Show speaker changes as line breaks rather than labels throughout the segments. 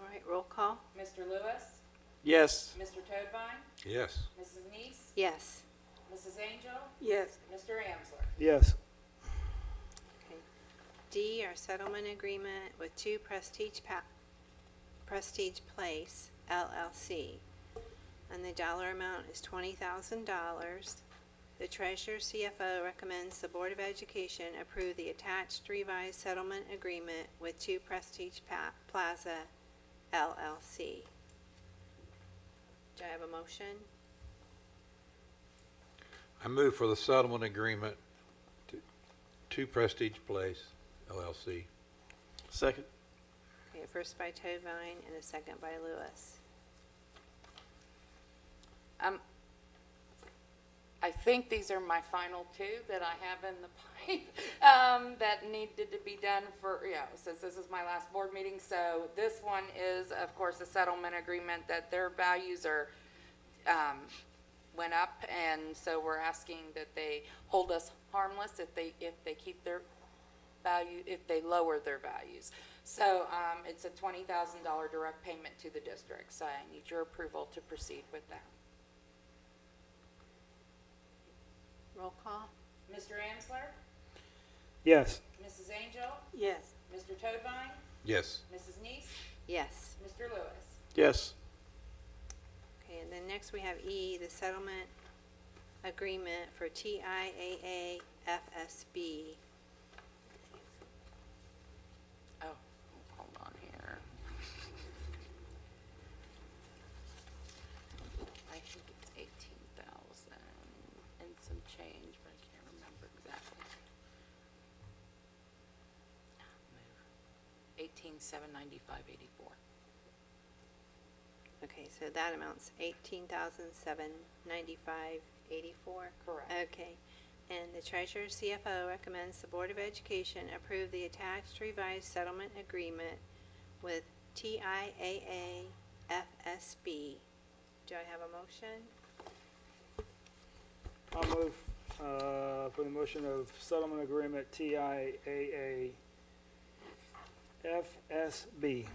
right, roll call?
Mr. Lewis,
Yes.
Mr. Toadvine,
Yes.
Mrs. Neese,
Yes.
Mrs. Angel,
Yes.
Mr. Amsler.
Yes.
D, our settlement agreement with Two Prestige Pa- Prestige Place LLC. And the dollar amount is twenty thousand dollars. The treasurer CFO recommends the Board of Education approve the attached revised settlement agreement with Two Prestige Pa- Plaza LLC. Do I have a motion?
I move for the settlement agreement to- to Prestige Place LLC.
Second.
Okay, first by Tovine and a second by Lewis.
Um, I think these are my final two that I have in the pipe, um, that needed to be done for, you know, since this is my last board meeting. So this one is, of course, a settlement agreement that their values are, um, went up. And so we're asking that they hold us harmless if they, if they keep their value, if they lower their values. So, um, it's a twenty thousand dollar direct payment to the district. So I need your approval to proceed with that.
Roll call?
Mr. Amsler,
Yes.
Mrs. Angel,
Yes.
Mr. Toadvine,
Yes.
Mrs. Neese,
Yes.
Mr. Lewis.
Yes.
Okay, and then next we have E, the settlement agreement for TIAA FSB.
Oh, hold on here. I think it's eighteen thousand and some change, but I can't remember exactly. Eighteen, seven ninety-five, eighty-four.
Okay, so that amounts eighteen thousand seven ninety-five eighty-four?
Correct.
Okay, and the treasurer CFO recommends the Board of Education approve the attached revised settlement agreement with TIAA FSB. Do I have a motion?
I'll move uh, for the motion of settlement agreement TIAA FSB.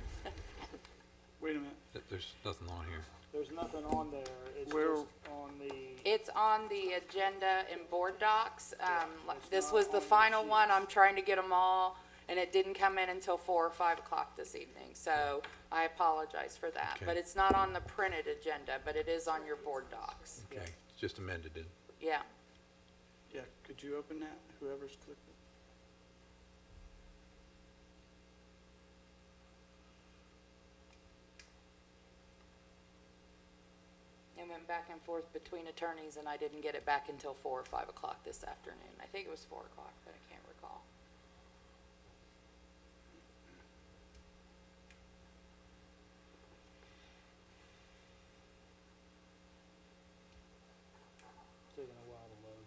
Wait a minute.
Th- There's nothing on here.
There's nothing on there, it's just
Where-
on the,
It's on the agenda in board docs. Um, like,
it's
this
not
was the
on the
final one.
sheets.
I'm trying to get them all, and it didn't come in until four or five o'clock this evening, so I apologize for that.
Okay.
But it's not on the printed agenda, but it is on your board docs.
Yeah.
Okay, it's just amended it.
Yeah.
Yeah, could you open that, whoever's clicked it?
It went back and forth between attorneys, and I didn't get it back until four or five o'clock this afternoon. I think it was four o'clock, but I can't recall.
taking a while to load.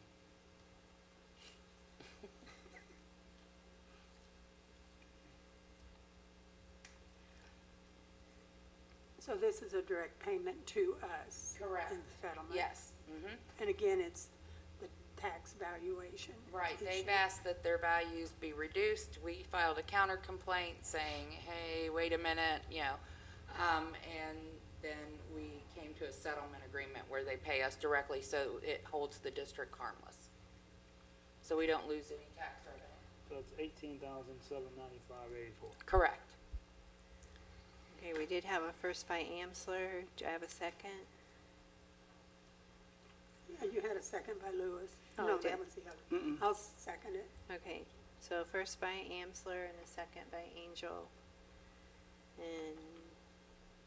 So this is a direct payment to us?
Correct.
In the settlement?
Yes. Mm-hmm.
And again, it's the tax valuation.
Right, they've
issue.
asked that their values be reduced. We filed a counter complaint saying, hey, wait a minute, you know. Um, and then we came to a settlement agreement where they pay us directly, so it holds the district harmless. So we don't lose any tax revenue.
So it's eighteen thousand seven ninety-five eighty-four.
Correct.
Okay, we did have a first by Amsler. Do I have a second?
Yeah, You had a second by Lewis.
Oh, I
No,
did.
that was the other. I'll second it.
Okay, so first by Amsler and a second by Angel. And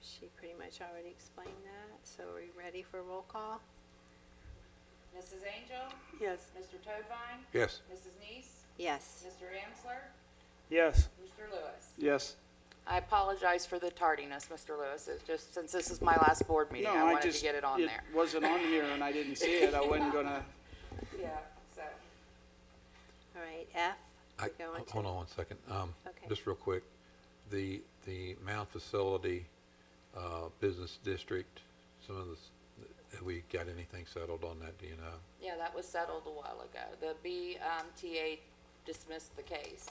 she pretty much already explained that, so are we ready for roll call?
Mrs. Angel,
Yes,
Mr. Toadvine,
Yes.
Mrs. Neese,
Yes.
Mr. Amsler,
Yes,
Mr. Lewis.
Yes.
I apologize for the tardiness, Mr. Lewis. It's just, since this is my last board meeting,
No,
I wanted to
just-
get it on there.
It wasn't on here and I didn't see it. I wasn't gonna,
Yeah, so.
All right, F,
I-
we're going to-
Hold on one second. Um,
Okay.
Just real quick, the, the Mound Facility uh, Business District, some of the, s- have we got anything settled on that, do you know?
Yeah, that was settled a while ago. The BMTA um, dismissed the case.